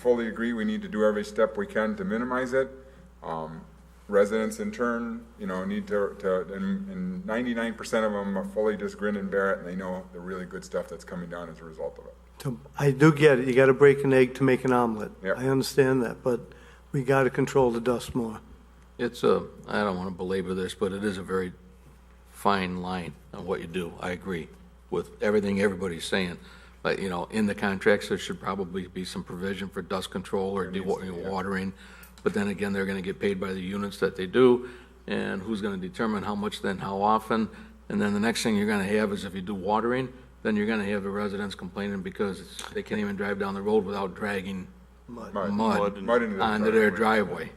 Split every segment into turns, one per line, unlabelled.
fully agree, we need to do every step we can to minimize it. Um, Residents in turn, you know, need to, to, and, and ninety-nine percent of them are fully just grin and bear it, and they know the really good stuff that's coming down as a result of it.
To- I do get it, you gotta break an egg to make an omelet.
Yeah.
I understand that, but we gotta control the dust more.
It's a, I don't want to belabor this, but it is a very fine line on what you do. I agree with everything everybody's saying. But, you know, in the contracts, there should probably be some provision for dust control or dewatering. But then again, they're going to get paid by the units that they do, and who's going to determine how much then, how often? And then the next thing you're going to have is if you do watering, then you're going to have the residents complaining because it's- they can't even drive down the road without dragging
Mud.
mud
Mud into their
onto their driveway.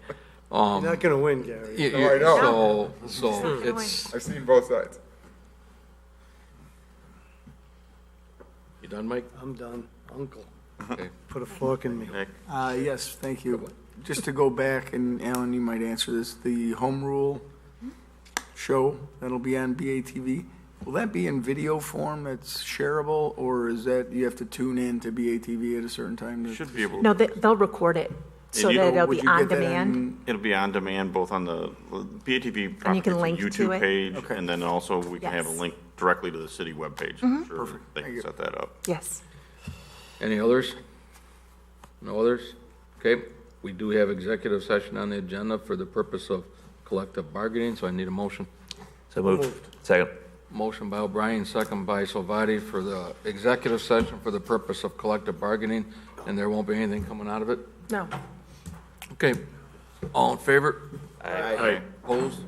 You're not gonna win, Gary.
You-
No,
you-
I know.
So, so it's,
I've seen both sides.
you done, Mike?
I'm done, uncle.
Okay.
Put a fork in me.
Uh, yes, thank you. Just to go back, and Alan, you might answer this, the home rule show that'll be on BATV, will that be in video form that's shareable, or is that, you have to tune in to BATV at a certain time? to-
Should be able,
No, they, they'll record it, so
And you-
that it'll
Would
be
you get
on
that
demand.
on-
it'll be on demand both on the BATV
And you can
property
link to
YouTube
it?
page,
Okay.
and then also we can have a
Yes. Mm-hmm.
link directly to the city webpage. I'm sure They can set that up.
Yes.
Any others? No others? Okay, we do have executive session on the agenda for the purpose of collective bargaining, so I need a motion.
So moved. Second.
Motion by O'Brien, second by Salvati for the executive session for the purpose of collective bargaining, and there won't be anything coming out of it?
No.
Okay, all in favor? Opposed?